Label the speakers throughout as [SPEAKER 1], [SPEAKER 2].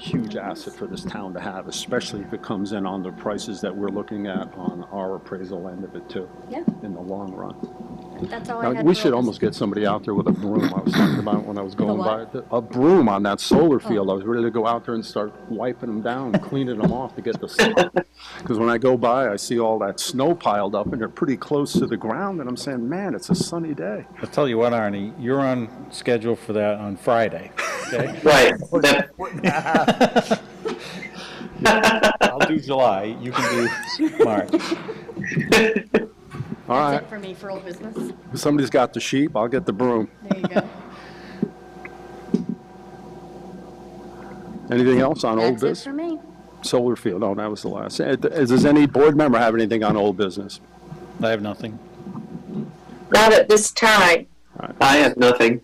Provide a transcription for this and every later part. [SPEAKER 1] huge asset for this town to have, especially if it comes in on the prices that we're looking at on our appraisal end of it too,
[SPEAKER 2] Yeah,
[SPEAKER 1] in the long run.
[SPEAKER 2] that's all I
[SPEAKER 1] Now,
[SPEAKER 2] had.
[SPEAKER 1] We
[SPEAKER 2] for
[SPEAKER 1] should
[SPEAKER 2] all this.
[SPEAKER 1] almost get somebody out there with a broom. I was talking about when I was going by.
[SPEAKER 2] what? Oh.
[SPEAKER 1] A broom on that solar field. I was ready to go out there and start wiping them down, cleaning them off to get the sun. Because when I go by, I see all that snow piled up and they're pretty close to the ground and I'm saying, man, it's a sunny day.
[SPEAKER 3] I'll tell you what, Arnie, you're on schedule for that on Friday, okay?
[SPEAKER 4] Right. That,
[SPEAKER 3] I'll do July, you can do March.
[SPEAKER 1] All
[SPEAKER 2] That's
[SPEAKER 1] right,
[SPEAKER 2] it for me for old business.
[SPEAKER 1] somebody's got the sheep, I'll get the broom.
[SPEAKER 2] There you go.
[SPEAKER 1] Anything else on old
[SPEAKER 2] That's it
[SPEAKER 1] business?
[SPEAKER 2] for me.
[SPEAKER 1] Solar field, oh, that was the last. Eh, th- Does any board member have anything on old business?
[SPEAKER 3] I have nothing.
[SPEAKER 5] Not at this time.
[SPEAKER 4] I have nothing.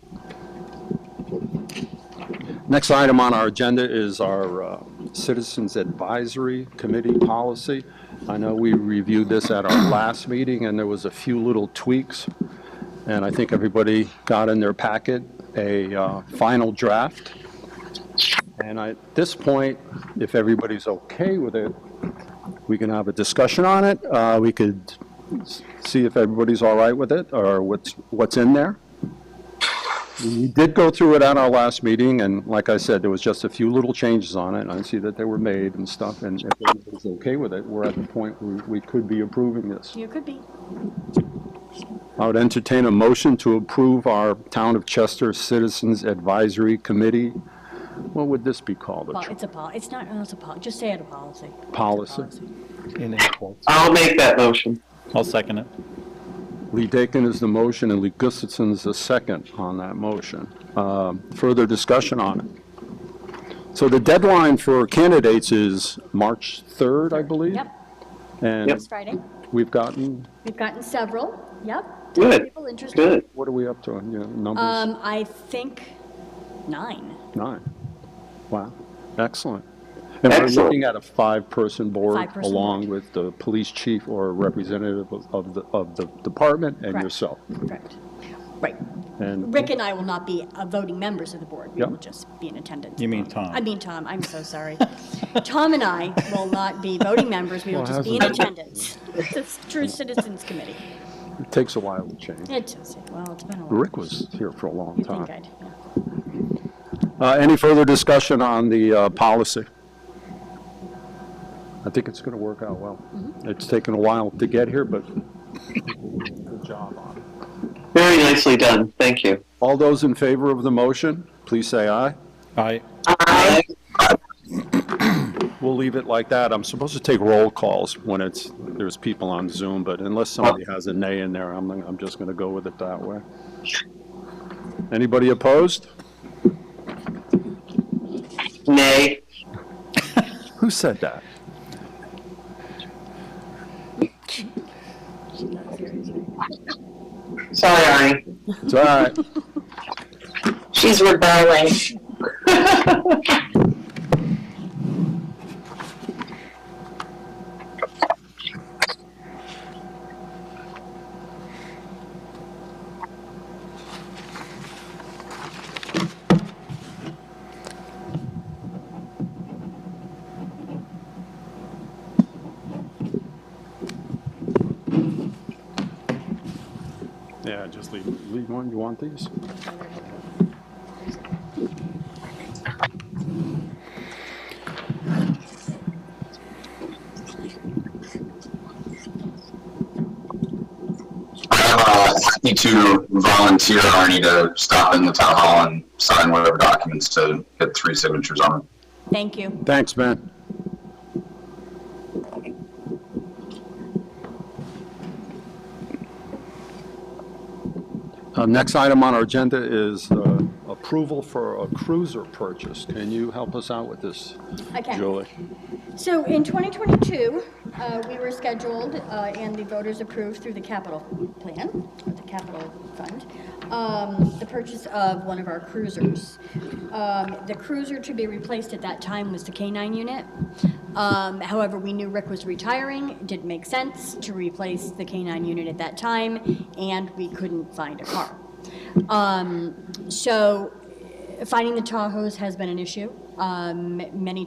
[SPEAKER 1] Next item on our agenda is our uh, Citizens Advisory Committee policy. I know we reviewed this at our last meeting, and there was a few little tweaks. And I think everybody got in their packet a uh, final draft. And I- at this point, if everybody's okay with it, we can have a discussion on it. Uh, We could s- see if everybody's all right with it, or what's, what's in there. We did go through it at our last meeting, and like I said, there was just a few little changes on it, and I see that they were made and stuff, and if everybody's okay with it, we're at the point where we could be approving this.
[SPEAKER 2] You could be.
[SPEAKER 1] I would entertain a motion to approve our Town of Chester Citizens Advisory Committee. What would this be called?
[SPEAKER 2] Well,
[SPEAKER 1] A tr-
[SPEAKER 2] it's a pol, it's not, no, it's a pol, just say it a policy. It's a
[SPEAKER 1] Policy.
[SPEAKER 3] In April.
[SPEAKER 4] I'll make that motion.
[SPEAKER 3] I'll second it.
[SPEAKER 1] Lee Dakin is the motion, and Lee Gustafson is the second on that motion. Um, Further discussion on it. So the deadline for candidates is March 3rd, I believe?
[SPEAKER 2] Yep,
[SPEAKER 1] And
[SPEAKER 2] it's Friday.
[SPEAKER 1] We've gotten,
[SPEAKER 2] We've gotten several, yep.
[SPEAKER 4] Good.
[SPEAKER 2] People interested.
[SPEAKER 4] Good.
[SPEAKER 1] what are we up to, you know, numbers?
[SPEAKER 2] Um, I think nine.
[SPEAKER 1] Nine. Wow, excellent. And we're
[SPEAKER 4] Excellent.
[SPEAKER 1] looking at a five-person board
[SPEAKER 2] Five-person
[SPEAKER 1] along with the police chief or a representative of- of the, of the department and
[SPEAKER 2] Correct.
[SPEAKER 1] yourself.
[SPEAKER 2] Correct. Right.
[SPEAKER 1] And
[SPEAKER 2] Rick and I will not be uh, voting members of the board. We
[SPEAKER 1] Yep.
[SPEAKER 2] will just be in attendance.
[SPEAKER 3] You mean Tom.
[SPEAKER 2] I mean Tom, I'm so sorry. Tom and I will not be voting members, we will
[SPEAKER 1] Well,
[SPEAKER 2] just be in
[SPEAKER 1] hasn't-
[SPEAKER 2] attendance. It's a true citizens committee.
[SPEAKER 1] it takes a while to change.
[SPEAKER 2] It does, well, it's been a while.
[SPEAKER 1] Rick was here for a long
[SPEAKER 2] You think
[SPEAKER 1] time.
[SPEAKER 2] I'd, yeah.
[SPEAKER 1] Uh, Any further discussion on the uh, policy? I think it's going to work out well.
[SPEAKER 2] Mm-hmm.
[SPEAKER 1] It's taken a while to get here, but good job on it.
[SPEAKER 4] Very nicely done. Thank you.
[SPEAKER 1] All those in favor of the motion, please say aye.
[SPEAKER 3] I,
[SPEAKER 4] I,
[SPEAKER 1] We'll leave it like that. I'm supposed to take roll calls when it's, there's people on Zoom, but unless somebody has a nay in there, I'm, I'm just going to go with it that way. Anybody opposed?
[SPEAKER 4] nay.
[SPEAKER 1] Who said that?
[SPEAKER 4] Sorry, Arnie.
[SPEAKER 1] It's all right.
[SPEAKER 5] She's rebelling.
[SPEAKER 1] Yeah, just leave, leave one. You want these?
[SPEAKER 6] I'm uh, happy to volunteer Arnie to stop in the town hall and sign whatever documents to get three signatures on them.
[SPEAKER 2] Thank you.
[SPEAKER 1] Thanks, man. Uh, Next item on our agenda is uh, approval for a cruiser purchase. Can you help us out with this,
[SPEAKER 2] Okay.
[SPEAKER 1] Julie?
[SPEAKER 2] So in 2022, uh, we were scheduled, uh, and the voters approved through the capital plan, or the capital fund, um, the purchase of one of our cruisers. Um, The cruiser to be replaced at that time was the K-9 unit. Um, However, we knew Rick was retiring, it didn't make sense to replace the K-9 unit at that time, and we couldn't find a car. Um, So finding the Tahoes has been an issue. Um, Many